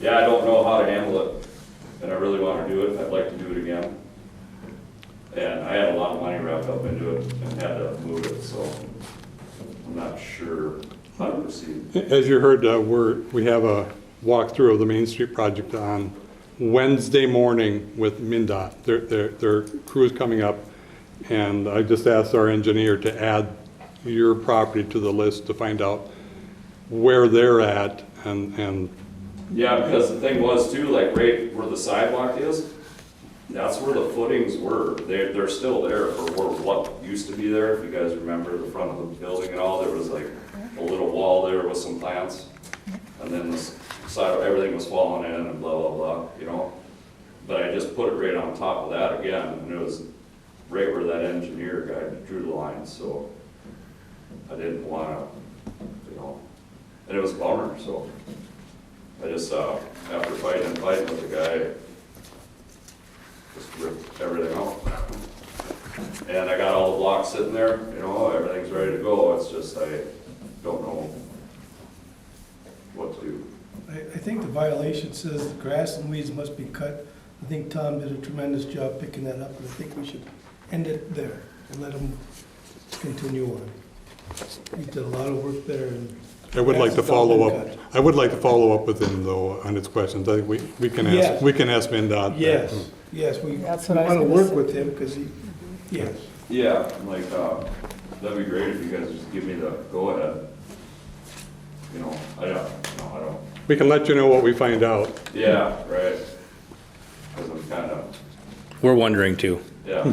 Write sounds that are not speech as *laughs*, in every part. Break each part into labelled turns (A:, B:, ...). A: yeah, I don't know how to handle it, and I really wanna do it, I'd like to do it again. And I had a lot of money wrapped up into it and had to move it, so I'm not sure how to proceed.
B: As you heard, uh, we're, we have a walkthrough of the Main Street project on Wednesday morning with MinDOT. Their, their, their crew is coming up, and I just asked our engineer to add your property to the list to find out where they're at, and, and
A: Yeah, because the thing was too, like right where the sidewalk is, that's where the footings were. They're, they're still there for where what used to be there. If you guys remember the front of the building and all, there was like a little wall there with some plants. And then this side, everything was falling in and blah, blah, blah, you know? But I just put it right on top of that again, and it was right where that engineer guy drew the line, so I didn't wanna, you know, and it was a bummer, so. I just, uh, after fighting and fighting with the guy, just ripped everything out. And I got all the blocks sitting there, you know, everything's ready to go, it's just I don't know what to do.
C: I, I think the violation says the grass and weeds must be cut. I think Tom did a tremendous job picking that up, and I think we should end it there and let him continue on. He did a lot of work there, and
B: I would like to
C: That's all been
B: follow up.
C: cut.
B: I would like to follow up with him, though, on his questions. I think we, we can
C: Yes.
B: ask, we can ask MinDOT. that.
C: yes, yes, we want
D: That's what I was
C: to
D: gonna
C: work
D: say. Mm-hmm.
C: with him, because he, yes.
A: Yeah, like, uh, that'd be great if you guys just give me the go-ahead. You know, I don't, no, I don't,
B: We can let you know what we find out.
A: yeah, right. Cause I'm kinda,
E: We're wondering too.
A: yeah, *laughs*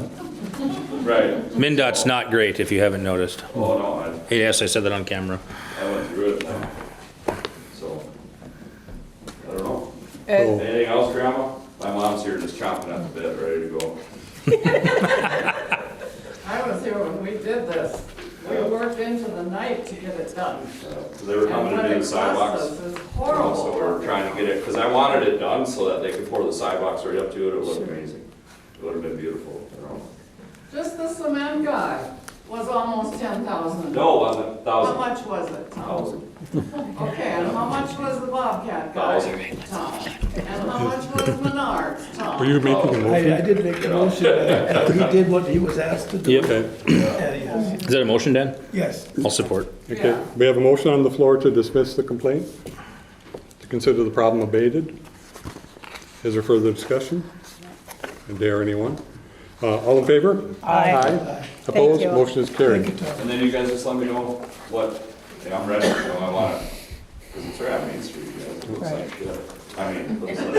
A: right,
E: MinDOT's not great, if you haven't noticed.
A: oh no, I,
E: Hey, Yes, I said that on camera.
A: I went through it, uh, so, I don't know.
B: So-
A: Anything else, Grandma? My mom's here just chomping at the bit, ready to go.
F: I was here when we did this. We worked into the night to get it done.
A: Because Uh, they were coming to do the sidewalks.
F: And what it cost us is
A: you know, So we we're
F: horrible.
A: trying to get it, because I wanted it done so that they could pour the sidewalks right up to it. It looked amazing. It would have been beautiful, you know.
F: Just the cement guy was almost ten thousand.
A: No, wasn't it?
F: How
A: thousand,
F: much was it, Tom?
A: thousand.
F: Okay, and how much was the Bobcat guy?
A: Thousand.
F: Tom. And how much was Menards, Tom?
B: Were you making a
C: I, I
B: motion?
C: did make a motion, and he did what he was asked to do.
B: Okay.
C: And yes,
E: Is that a motion, Dan?
C: yes,
E: I'll support.
B: Okay, we have a motion on the floor to dismiss the complaint, to consider the problem abated. Is there further discussion? I dare anyone? Uh, All in favor?
D: Aye.
B: Opposed?
D: you.
B: Motion is
C: thank you,
B: carried.
C: Tom.
A: And then you guys just let me know what, yeah, I'm ready, you know, I want it. Because it's right on Main Street, you know, it looks like shit. I mean, it looks like,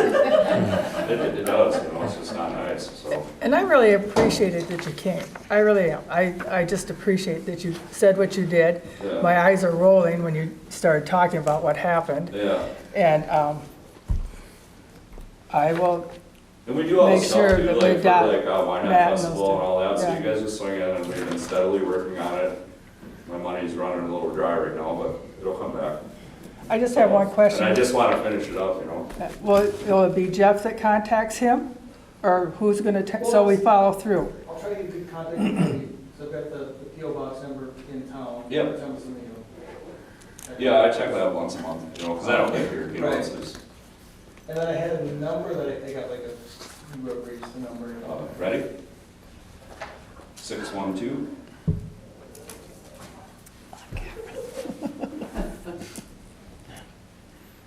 A: it, it- it does, you know, it's just not nice, so.
D: And I really appreciated that you came. I really am. I, I just appreciate that you said what you did.
A: Yeah.
D: My eyes are rolling when you started talking about what happened.
A: Yeah,
D: And um, I will,
A: and we do all
D: Make
A: this
D: sure
A: stuff too,
D: that
A: like
D: we've
A: for
D: got
A: like uh, Why Not
D: that and those
A: Festival and all that, so
D: yeah.
A: you guys just swing in and we've been steadily working on it. My money's running a little dry right now, but it'll come back.
D: I just have one
A: And I
D: question.
A: just wanna finish it up, you know?
D: Will, it- will it be Jeff that contacts him? Or who's going to, so we follow through?
G: I'll try to get good contact with you, so I've got the, the PO box number in town.
A: Yep.
G: Send us an email.
A: Yeah, I check that once a month, you know, because I don't live here, you know, it's just,
G: And then I had a number that I, I got like a, whoever raised the number. and
A: uh, *laughs*
G: all
A: ready? Six, one, two?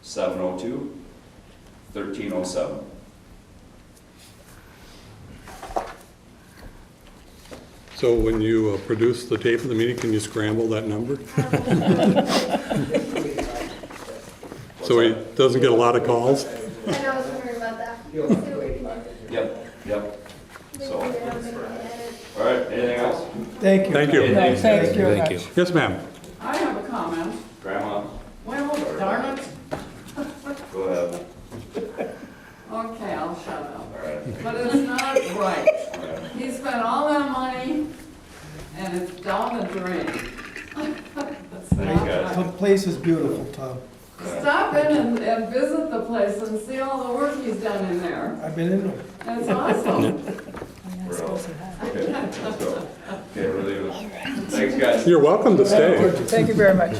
A: Seven oh two, thirteen oh seven.
B: So when you uh, produce the tape of the meeting, can you scramble that number? *laughs* So he doesn't get a lot of calls?
H: I know, I was wondering about that.
G: Yeah.
H: Let's see what we can do.
A: Yep, yep. So,
H: Maybe they're not gonna edit.
A: all right, anything else?
C: Thank you.
B: Thank you.
D: No,
A: Thanks,
D: thank you very
E: Thank you.
D: much.
B: Yes, ma'am.
F: I have a comment.
A: Grandma,
F: Well, darn it.
A: go ahead.
F: Okay, I'll shut up.
A: All right.
F: But it's not right.
A: all right.
F: He spent all that money and it's down the drain. It's
A: you,
F: not
A: guys.
F: right.
C: The place is beautiful, Tom.
F: Stop in and, and visit the place and see all the work he's done in there.
C: I've been in there.
F: It's awesome.
A: We're out. Okay, let's go. Okay, we're leaving. Thanks, guys.
B: You're welcome to stay.
D: Thank you very much.